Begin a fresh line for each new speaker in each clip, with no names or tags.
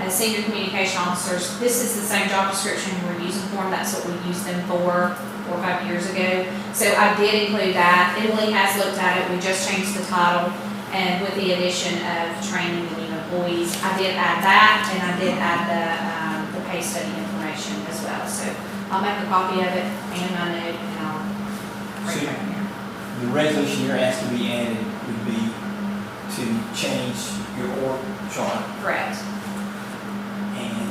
the senior communication officers, this is the same job description we're using for them, that's what we used them for four or five years ago. So I did include that, Emily has looked at it, we just changed the title, and with the addition of training the new employees, I did add that, and I did add the, um, the pay study information as well, so I'll make a copy of it, and my note, and I'll. bring it back in.
The resolution you're asking to be added would be to change your org chart
Correct.
and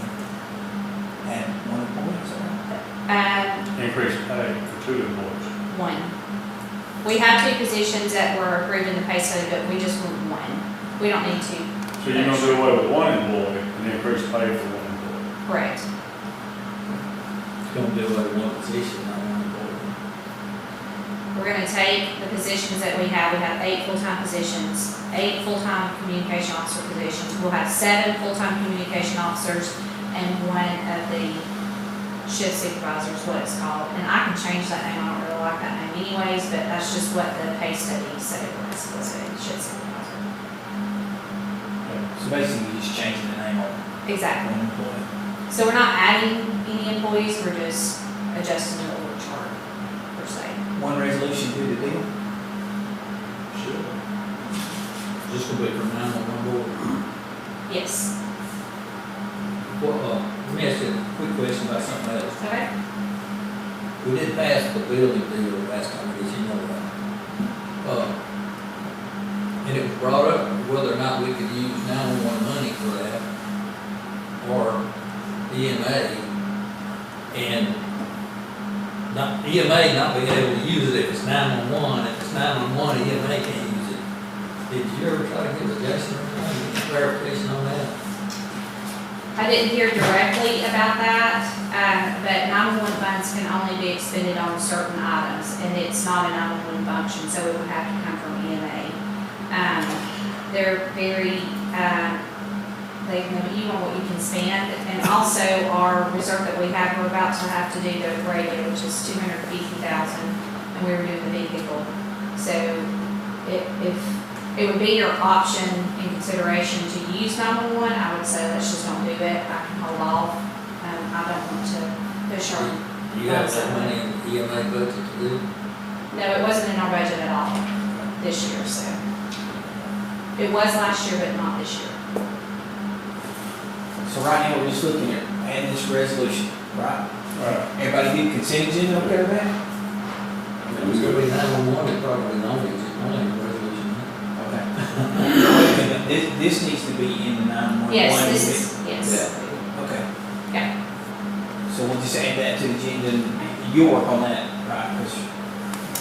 add one employee, is that right?
Um,
Increase pay for two employees.
one. We have two positions that were approved in the pay study, but we just want one. We don't need two.
So you're gonna do away with one employee and increase pay for one employee.
Correct.
It's gonna be like one position, not one employee.
We're gonna take the positions that we have, we have eight full-time positions, eight full-time communication officer positions. We'll have seven full-time communication officers and one of the shift supervisors, what it's called. And I can change that name, I don't really like that name anyways, but that's just what the pay study said it was, was a shift supervisor.
So basically, you're just changing the name of
Exactly.
one employee.
So we're not adding any employees, we're just adjusting the org chart per se.
One resolution do the deal?
Sure. Just gonna be from nine to one board.
Yes.
Well, uh, let me ask you a quick question about something else.
Okay.
We did pass the building deal last time, did you know that? Uh, And it was brought up whether or not we could use nine-one-one money for that, or EMA, and not, EMA not being able to use it if it's nine-one-one, if it's nine-one-one, EMA E can't use it. Did you ever try to get a Jason or anything, any clarification on that?
I didn't hear directly about that, uh, but nine-one-one funds can only be expended on certain items, and it's not a nine-one-one function, so it would have to come from E EMA. Um, they're very, uh, they limit you on what you can spend, and also our reserve that we have, we're about to have to do the radio, which is two hundred fifty thousand, and we were doing the vehicle. So it, if, it would be your option in consideration to use nine-one-one, I would say let's just don't do it, I can hold off. Um, I don't want to push our,
Do you have that money in the EMA budget to do? it?
no, it wasn't in our budget at all this year, so. It was last year, but not this year.
So right now, we're just looking at adding this resolution, right?
Right.
Everybody get consent agenda up there, man?
It was gonna be nine-one-one, it probably not, it's only a resolution.
Okay. Wait a minute, this, this needs to be in the nine-one-one.
Yes, this is, yes.
Okay.
Yeah.
So we'll just add that to the agenda, and you'll work on that, right, 'cause,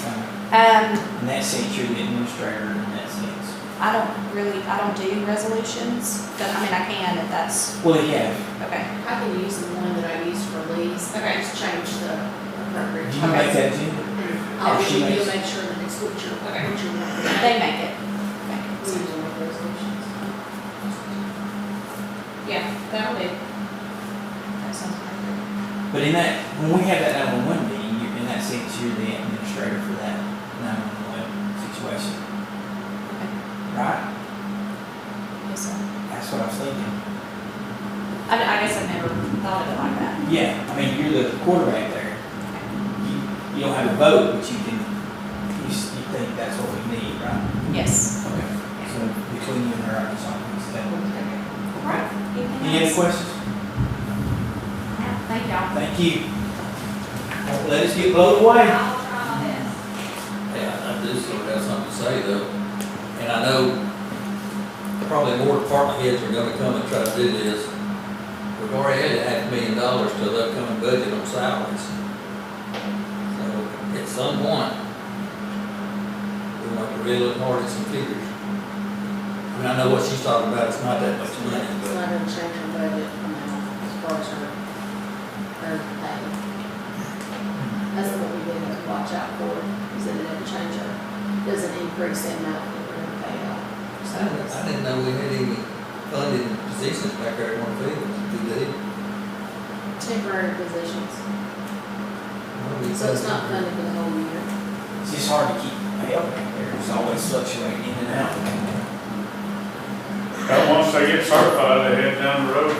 uh,
Um,
in that sense, you're the administrator in that sense.
I don't really, I don't do resolutions, but I mean, I can if that's,
Well, yeah,
okay.
I can use the one that I used for Lee's, but I just change the
do
appropriate.
you make that agenda?
I'll
Or she
give you,
makes-
make sure that it's what you're, what
Okay.
you're wanting.
They make it. Make
We
it.
need to make resolutions.
Yeah, that'll do. That sounds perfect.
But in that, when we have that nine-one-one meeting, you're, in that sense, you're the administrator for that nine-one-one situation, right?
Yes, sir.
That's what I was thinking.
I, I guess I've never thought of it like that.
Yeah, I mean, you're the quarterback there. You, you don't have a vote, but you can, you, s- you think that's what we need, right?
Yes.
Okay. So between you and her, I can solve this. That-
Right.
Any other questions?
Thank y'all.
Thank you. Don't let us get blown away.
I'll try my best.
Yeah, I do still have something to say though, and I know probably more department heads are gonna come and try to do this. We've already added half a million dollars to the upcoming budget on salaries. So at some point, we want to really look hard at some figures. I mean, I know what she's talking about, it's not that much money,
It's
but
not gonna change her budget from now, as far as her, her pay. That's what we really have to watch out for, is that it doesn't change her, doesn't increase the amount that we're gonna pay out. So
I didn't, I didn't know we had any funded positions back there at one field, did they?
it's temporary positions, so it's not funded for the whole year.
It's just hard to keep pay up there. It's always fluctuating in and out.
Now, once they get certified, they head down the road